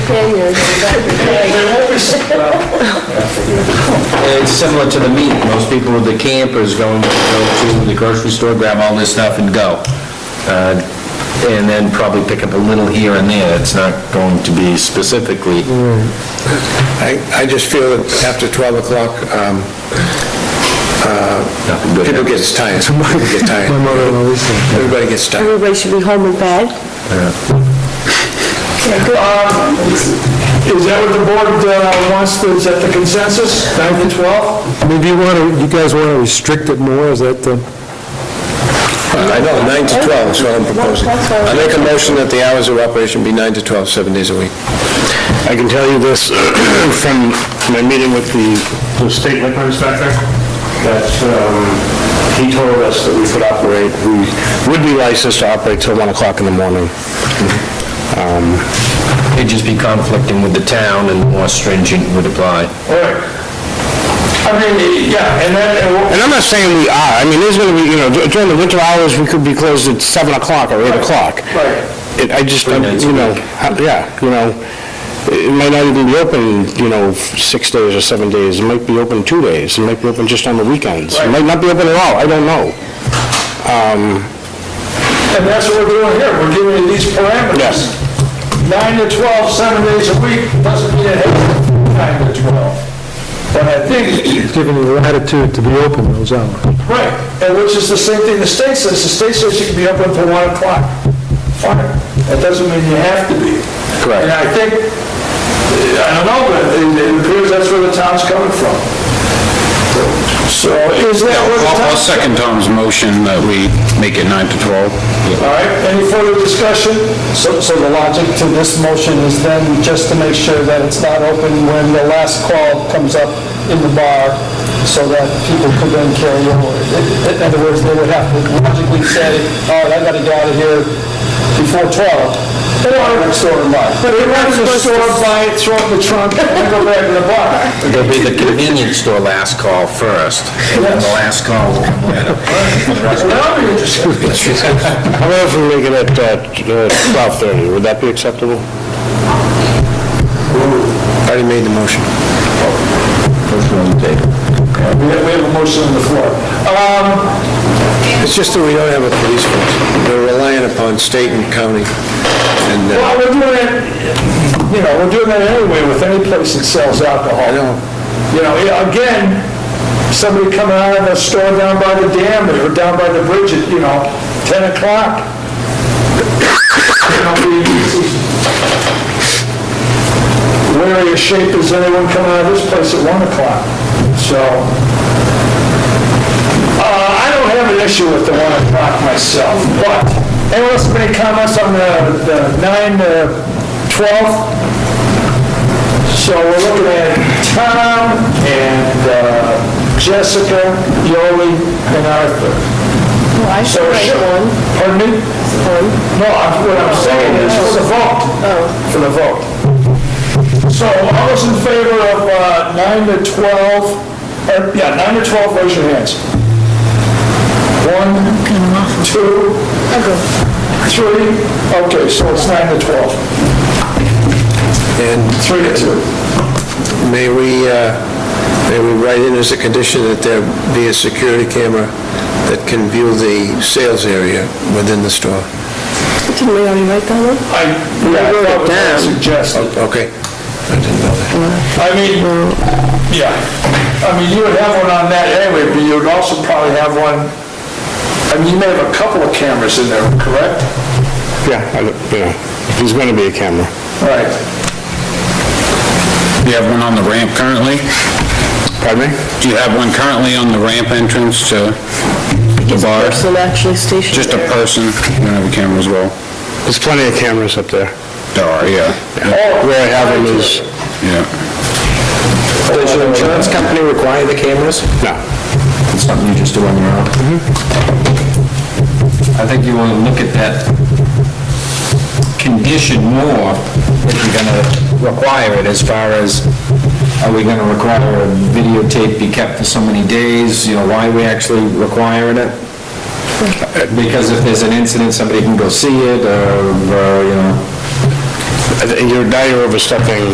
failure. It's similar to the meat. Most people with the campers going to go to the grocery store, grab all this stuff and go. Uh, And then probably pick up a little here and there. It's not going to be specifically. I, I just feel that after 12 o'clock, um, nothing good. people get tired, people get tired. My mother always said. Everybody gets tired. Everybody should be home in bed. Okay, good. Is that what the board uh, wants, to- is that the consensus, 9 to I 12? mean, do you want to, you guys want to restrict it uh, more, is that the, I know, 9 to 12 is what I'm proposing. I make a motion that the hours of operation be 9 to 12, seven days a week. I can tell you this from my meeting with the the state liquor inspector, that um, he told us that we could operate, we would be licensed to operate till 1 o'clock in the morning. It'd just be conflicting with the town and more stringent would apply. All right. I mean, yeah, and then, and we'll- And I'm not saying we are, I mean, there's going to be, you know, dur- during the winter hours, we could be closed at 7 o'clock or 8 o'clock. right. It- I just, Three nights a you know, how- yeah, you know, it might not even be open, you know, six days or seven days, it might be open two days, it might be open just on the weekends, it might not be open at all, I don't know. and that's what we're doing here, we're giving you these Yes. parameters. 9 to 12, seven days a week, doesn't mean it has to be 9 to 12. But I think giving you latitude to be open those hours? Right, and which is the same thing the state says, the state says you can be open until 1 o'clock. Fine, that doesn't mean you have to be. Correct. And I think, I don't know, but it it appears that's where the town's coming from. So is that where the town's... second Tom's motion that we make it 9 to 12. All right, any further discussion? So, so the logic to this motion is then just to make sure that it's not open when the last call comes up in the bar, so that people could then carry over. In- In other words, they would have to logically say, all right, I gotta get out of here before 12. They don't have a store in bar. But it runs the store, buy it, throw it in the trunk, and go back to the bar. It'll be the convenience store last call first, and then the last call will come later. That'll be interesting. How about if we make it at uh, t- uh, 12:30, would that be acceptable? Already made the motion. We have we have a motion on the floor. Um, It's just that we don't have a police force. We're relying upon state and county. And uh, Well, we're doing it, you know, we're doing that anyway with any place that sells alcohol. I know. You know, yeah, again, somebody coming out of a store down by the dam or down by the bridge at, you know, 10 o'clock. You know, we- Wary of shape is anyone coming out of this place at 1 o'clock, so. Uh, I don't have an issue with the 1 o'clock myself, but anyone else have any comments on the uh, the 9 to 12? So we're looking at Tom and uh, Jessica, Yoli, and Arthur. I So should write should- one. Pardon me? No, I'm- what I'm saying is for the vote. For the vote. So all those in favor of uh, 9 to 12, or, yeah, 9 to 12, raise your hands. One, two, three, okay, so it's 9 to 12, And 3 to 2. May we, uh, may we write in as a condition that there be a security camera that can view the sales area within the store? Didn't we already write that one? I, yeah, I thought that was suggested. Okay. I didn't know that. I mean, yeah, I mean, you would have one on that anyway, but you would also probably have one, I mean, you may have a couple of cameras in there, correct? Yeah, I don't- you know, there's going to be a camera. Right. Do you have one on the ramp currently? Pardon me? Do you have one currently on the ramp entrance to the bar? Person actually stationed Just a there. person, you don't have a camera as well? There's plenty of cameras up there. There are, yeah, Where I have them is, yeah. Does your insurance company require the cameras? no. It's something you just do on your own? I think you want to look at that condition more if you're going to require it as far as, are we going to require a videotape be kept for so many days, you know, why are we actually requiring it? Because if there's an incident, somebody can go see it, or, or, you know, I- you're, now you're overstepping